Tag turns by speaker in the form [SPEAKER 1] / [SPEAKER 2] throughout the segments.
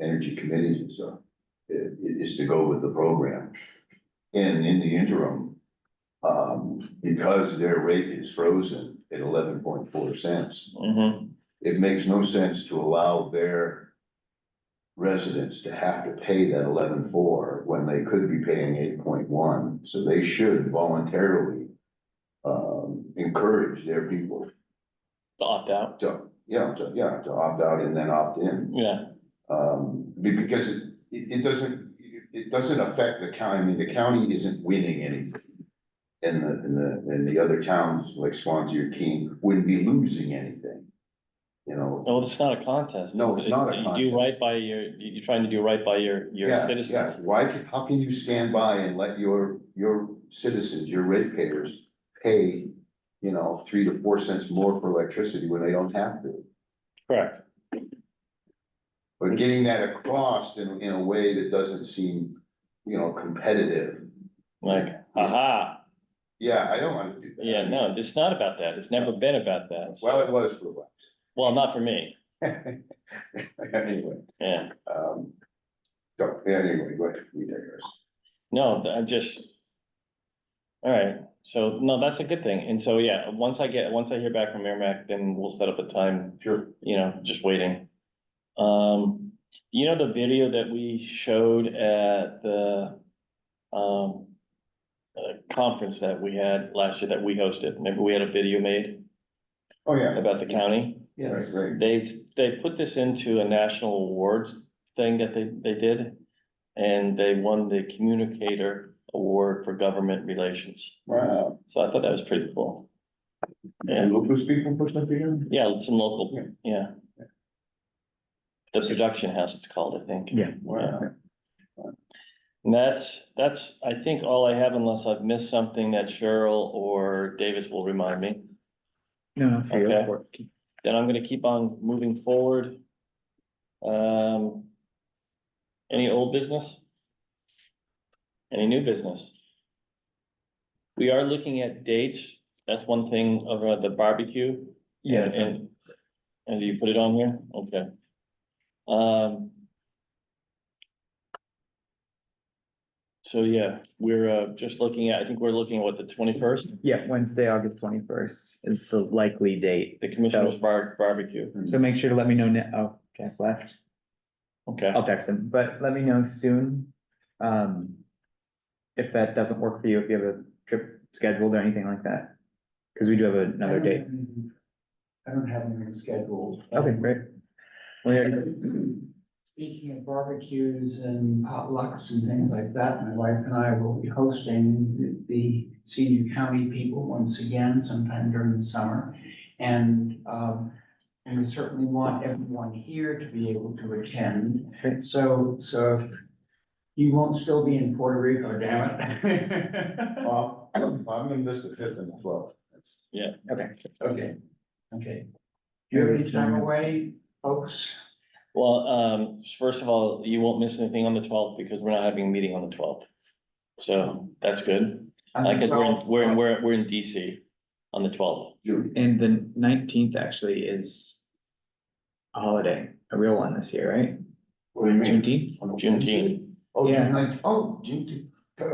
[SPEAKER 1] energy committees and stuff, i- i- is to go with the program. And in the interim, um, because their rate is frozen at eleven point four cents,
[SPEAKER 2] Mhm.
[SPEAKER 1] it makes no sense to allow their residents to have to pay that eleven four when they could be paying eight point one, so they should voluntarily um, encourage their people
[SPEAKER 2] opt out,
[SPEAKER 1] to, yeah, to, yeah, to opt out and then opt in.
[SPEAKER 2] yeah,
[SPEAKER 1] Um, be- because it, it, it doesn't, it, it doesn't affect the county, I mean, the county isn't winning anything. And the, and the, and the other towns like Swansea or Keene wouldn't be losing anything. You know,
[SPEAKER 2] no, it's not a contest.
[SPEAKER 1] No, it's not a
[SPEAKER 2] You
[SPEAKER 1] contest.
[SPEAKER 2] do right by your, you- you're trying to do right by your, your
[SPEAKER 1] yeah, yeah,
[SPEAKER 2] citizens.
[SPEAKER 1] why, can- how can you stand by and let your, your citizens, your ratepayers pay, you know, three to four cents more for electricity when they don't have to?
[SPEAKER 2] Correct,
[SPEAKER 1] But getting that across in, in a way that doesn't seem, you know, competitive.
[SPEAKER 2] like, aha,
[SPEAKER 1] Yeah, I don't wanna do that.
[SPEAKER 2] yeah, no, it's not about that, it's never been about that.
[SPEAKER 1] Well, it was for a while.
[SPEAKER 2] Well, not for me,
[SPEAKER 1] Anyway,
[SPEAKER 2] yeah,
[SPEAKER 1] um, so, yeah, anyway, go ahead, we digress.
[SPEAKER 2] no, I'm just. All right, so, no, that's a good thing, and so, yeah, once I get, once I hear back from Merrimack, then we'll set up a time
[SPEAKER 1] Sure.
[SPEAKER 2] you know, just waiting. Um, you know, the video that we showed at the, um. Uh, conference that we had last year that we hosted, remember we had a video made
[SPEAKER 1] Oh, yeah.
[SPEAKER 2] about the county?
[SPEAKER 1] Right, right.
[SPEAKER 2] They, they put this into a national awards thing that they, they did. And they won the Communicator Award for Government Relations,
[SPEAKER 1] Wow.
[SPEAKER 2] so I thought that was pretty cool. Yeah.
[SPEAKER 1] And look who's people put that together?
[SPEAKER 2] Yeah, some local,
[SPEAKER 1] Yeah.
[SPEAKER 2] yeah. The production house it's called, I think.
[SPEAKER 3] Yeah.
[SPEAKER 1] Wow.
[SPEAKER 2] And that's, that's, I think all I have unless I've missed something that Cheryl or Davis will remind me.
[SPEAKER 3] No, for your
[SPEAKER 2] Okay.
[SPEAKER 3] report.
[SPEAKER 2] Then I'm gonna keep on moving forward. Um. Any old business? Any new business? We are looking at dates. That's one thing over the barbecue.
[SPEAKER 3] Yeah,
[SPEAKER 2] And- And, and do you put it on here? Okay. Um. So, yeah, we're, uh, just looking at, I think we're looking at what, the twenty-first,
[SPEAKER 3] yeah, Wednesday, August twenty-first is the likely date.
[SPEAKER 2] the commissioner's bar- barbecue.
[SPEAKER 3] So make sure to let me know now. Oh, Jack left.
[SPEAKER 2] Okay,
[SPEAKER 3] I'll text him, but let me know soon. Um. If that doesn't work for you, if you have a trip scheduled or anything like that. Cause we do have another
[SPEAKER 4] Um,
[SPEAKER 3] date.
[SPEAKER 4] I don't have anything scheduled.
[SPEAKER 3] Okay, great. Well, yeah,
[SPEAKER 4] Speaking of barbecues and potlucks and things like that, my wife and I will be hosting the- the senior county people once again sometime during the summer. And, um, and we certainly want everyone here to be able to attend.
[SPEAKER 3] Okay.
[SPEAKER 4] So, so if you won't still be in Puerto Rico, damn it.
[SPEAKER 1] Well, I'm gonna miss the fifth and the twelfth.
[SPEAKER 3] okay.
[SPEAKER 4] Okay, okay. Do you have any time away, folks?
[SPEAKER 2] well, um, first of all, you won't miss anything on the twelfth because we're not having a meeting on the twelfth. So that's good,
[SPEAKER 4] I
[SPEAKER 2] like,
[SPEAKER 4] think
[SPEAKER 2] cause we're, in-
[SPEAKER 4] so.
[SPEAKER 2] we're, in- we're, we're in DC on the twelfth.
[SPEAKER 1] June.
[SPEAKER 3] And the nineteenth actually is. A holiday, a real one this year, right?
[SPEAKER 1] What do you mean?
[SPEAKER 3] Juneteenth?
[SPEAKER 2] Juneteenth.
[SPEAKER 1] Oh,
[SPEAKER 3] Yeah.
[SPEAKER 1] June nineteenth, oh, June, uh,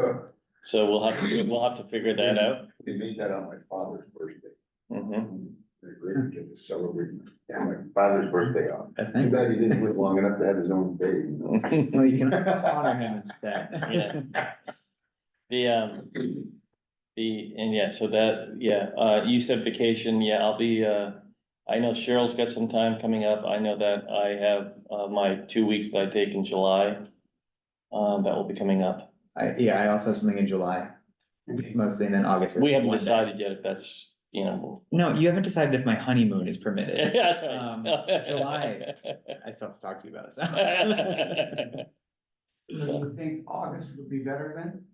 [SPEAKER 2] So we'll have to, we'll have to figure that out.
[SPEAKER 1] they made that on my father's birthday.
[SPEAKER 2] Mhm.
[SPEAKER 1] They're great, they just celebrate my father's birthday off.
[SPEAKER 3] That's
[SPEAKER 1] Too
[SPEAKER 3] nice.
[SPEAKER 1] bad he didn't live long enough to have his own baby, you know?
[SPEAKER 3] Well, you can honor him instead.
[SPEAKER 2] The, um, the, and yeah, so that, yeah, uh, you said vacation, yeah, I'll be, uh, I know Cheryl's got some time coming up. I know that I have, uh, my two weeks that I take in July. Um, that will be coming up.
[SPEAKER 3] I, yeah, I also have something in July, mostly, and then August. is
[SPEAKER 2] We haven't
[SPEAKER 3] one day.
[SPEAKER 2] decided yet if that's, you know.
[SPEAKER 3] No, you haven't decided if my honeymoon is permitted.
[SPEAKER 2] Yeah, that's right.
[SPEAKER 3] Um, July. I still have to talk to you about it. so.
[SPEAKER 4] So you think August would be better then?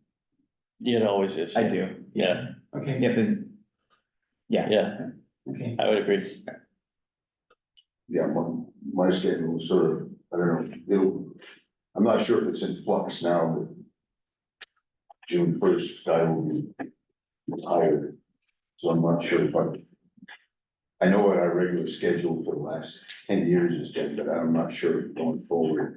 [SPEAKER 2] It always is.
[SPEAKER 3] I
[SPEAKER 2] yeah.
[SPEAKER 3] do, yeah,
[SPEAKER 2] Yeah.
[SPEAKER 4] Okay,
[SPEAKER 3] yeah, there's. Yeah,
[SPEAKER 2] Yeah,
[SPEAKER 4] okay.
[SPEAKER 2] I would agree.
[SPEAKER 1] Yeah, my, my schedule was sort of, I don't know, it'll, I'm not sure if it's in flux now, but June first, I will be retired, so I'm not sure if I, I know what our regular schedule for the last ten years has been, but I'm not sure going forward.